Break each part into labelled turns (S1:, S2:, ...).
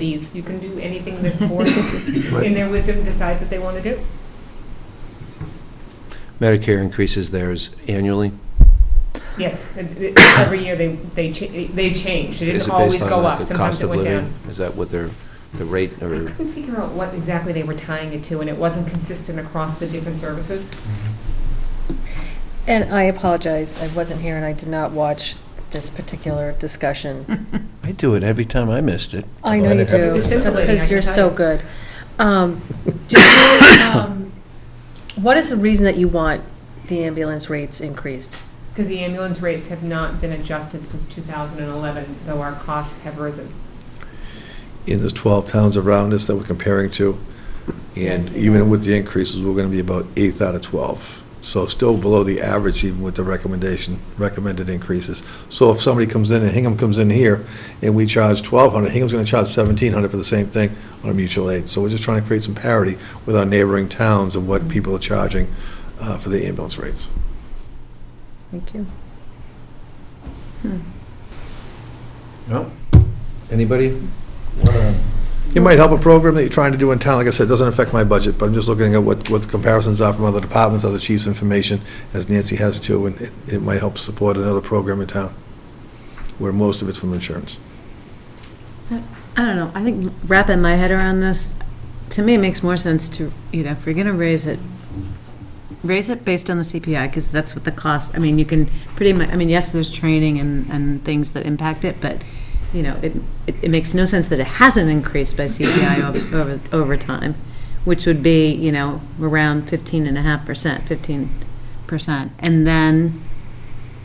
S1: These, you can do anything that the board, in their wisdom, decides that they want to do.
S2: Medicare increases theirs annually.
S1: Yes, it- it- every year they, they, cha- they changed. It
S2: Is
S1: didn't
S2: it
S1: always
S2: based on
S1: go
S2: the-
S1: up.
S2: the
S1: Sometimes
S2: cost
S1: it
S2: of
S1: went
S2: living?
S1: down.
S2: Is that what their, the rate
S1: I
S2: or?
S1: couldn't figure out what exactly they were tying it to, and it wasn't consistent across the different services.
S3: And I apologize, I wasn't here and I did not watch this particular discussion.
S4: I do it every time I missed it.
S3: I know you
S1: It
S3: do,
S1: was
S3: just
S1: scintillating, I
S3: because
S1: can
S3: you're
S1: tell
S3: so
S1: you.
S3: good. Um, do you, um, What is the reason that you want the ambulance rates increased?
S1: Because the ambulance rates have not been adjusted since 2011, though our costs have risen.
S5: And there's 12 towns around us that we're comparing to. And
S1: Yes.
S5: even with the increases, we're going to be about eighth out of 12. So still below the average even with the recommendation, recommended increases. So if somebody comes in and Hingham comes in here and we charge 1,200, Hingham's going to charge 1,700 for the same thing on a mutual aid. So we're just trying to create some parity with our neighboring towns of what people are charging uh, for the ambulance rates.
S3: Thank you.
S2: No? Anybody?
S5: It might help a program that you're trying to do in town. Like I said, it doesn't affect my budget, but I'm just looking at what, what the comparisons are from other departments, other chiefs' information, as Nancy has too, and it, it might help support another program in town, where most of it's from insurance.
S6: I don't know, I think wrapping my head around this, to me, it makes more sense to, you know, if you're going to raise it, raise it based on the CPI, because that's what the cost, I mean, you can pretty much, I mean, yes, there's training and, and things that impact it, but, you know, it, it it makes no sense that it hasn't increased by CPI over, over, over time, which would be, you know, around fifteen and a half percent, fifteen percent, and then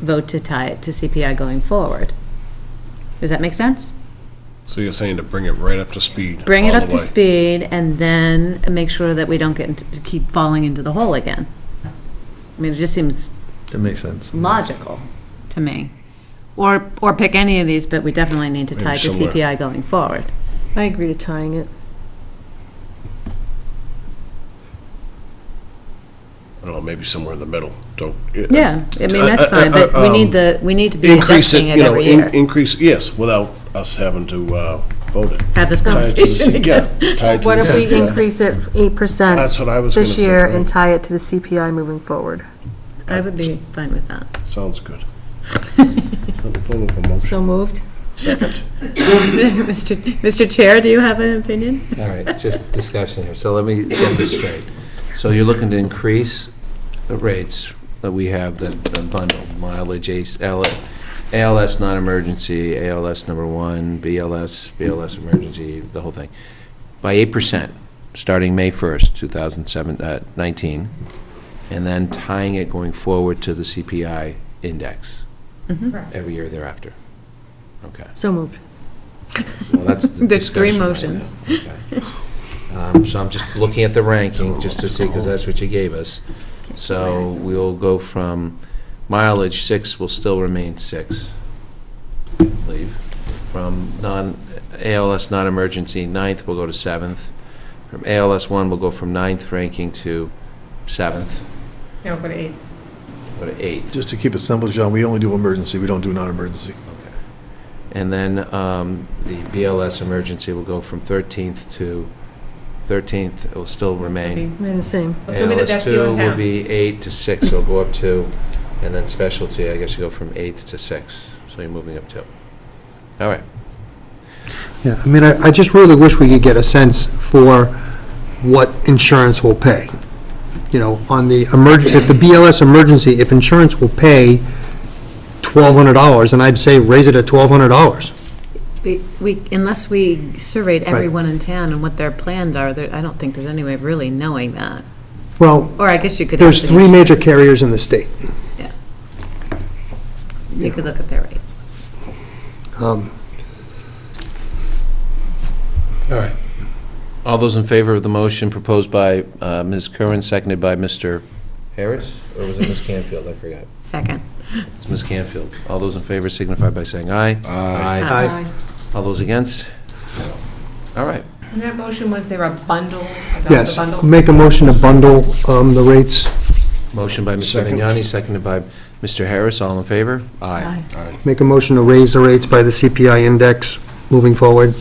S6: vote to tie it to CPI going forward. Does that make sense?
S7: So you're saying to bring it right up to speed?
S6: bring it
S7: all
S6: up
S7: the
S6: to
S7: way.
S6: speed and then make sure that we don't get into, to keep falling into the hole again. I mean, it just seems
S5: That makes sense.
S6: logical to me. Or, or pick any of these, but we definitely need to
S7: Maybe
S6: tie it to
S7: somewhere.
S6: CPI going forward.
S3: I agree to tying it.
S7: I don't know, maybe somewhere in the middle. Don't.
S6: Yeah, I mean, that's
S7: Uh, uh,
S6: fine, but
S7: uh,
S6: we need
S7: um,
S6: the, we need to be
S7: Increase
S6: adjusting
S7: it,
S6: it
S7: you know,
S6: every
S7: in-
S6: year.
S7: increase, yes, without us having to uh, vote it.
S6: Have this
S7: Tie it to the
S6: conversation
S7: C-
S6: again.
S7: yeah, tie it to
S3: What
S7: the
S3: if we
S7: CPI.
S3: increase it eight percent
S7: That's what I was going to
S3: this
S7: say.
S3: year and tie it to the CPI moving forward?
S6: I would be fine with that.
S7: Sounds good. Let me follow up a motion.
S3: So moved?
S7: Second.
S6: Mr. Mr. Chair, do you have an opinion?
S2: All right, just discussion here. So let me get this straight. So you're looking to increase the rates that we have that are bundled mileage, ACE, L- ALS non-emergency, ALS number one, BLS, BLS emergency, the whole thing, by 8%, starting May 1st, 2019, uh, and then tying it going forward to the CPI index every year thereafter. Okay.
S3: So moved.
S2: Well, that's the
S6: There's three
S2: discussion item. Okay. Um, So I'm just looking at the ranking, just to see, because that's what you gave us. So we'll go from mileage, six will still remain six, I believe. From non, ALS non-emergency, ninth will go to seventh. From ALS one, we'll go from ninth ranking to seventh,
S1: No, but it,
S2: go to eighth.
S5: Just to keep it simple, John, we only do emergency, we don't do non-emergency.
S2: Okay. And then um, the BLS emergency will go from 13th to, 13th it will still remain.
S3: Remain the same.
S1: It'll still be the best deal in
S2: ALS2 will
S1: town.
S2: be 8 to 6, it'll go up 2, and then specialty, I guess you go from 8 to 6, so you're moving up 2. All right.
S8: Yeah, I mean, I I just really wish we could get a sense for what insurance will pay. You know, on the emerg, if the BLS emergency, if insurance will pay $1,200, and I'd say raise it at $1,200.
S6: We, we- unless we surveyed
S8: Right.
S6: everyone in town and what their plans are, there- I don't think there's any way of really knowing that.
S8: Well,
S6: Or I guess you could.
S8: there's
S6: have
S8: three
S6: the
S8: major
S6: insurance.
S8: carriers in the state.
S6: You could look at their rates.
S8: Um,
S2: All right. All those in favor of the motion proposed by uh, Ms. Curran, seconded by Mr. Harris? Or was it Ms. Canfield? I forgot.
S6: Second.
S2: It's Ms. Canfield. All those in favor signify by saying aye. Aye.
S3: Aye.
S2: All those against? All right.
S1: and that motion was there a bundle, adopt a
S8: Yes,
S1: bundle?
S8: make a motion to bundle um, the rates,
S2: Motion by Mr.
S7: Second.
S2: Vignani, seconded by Mr. Harris. All in favor? Aye.
S8: make a motion to raise the rates by the CPI index moving forward.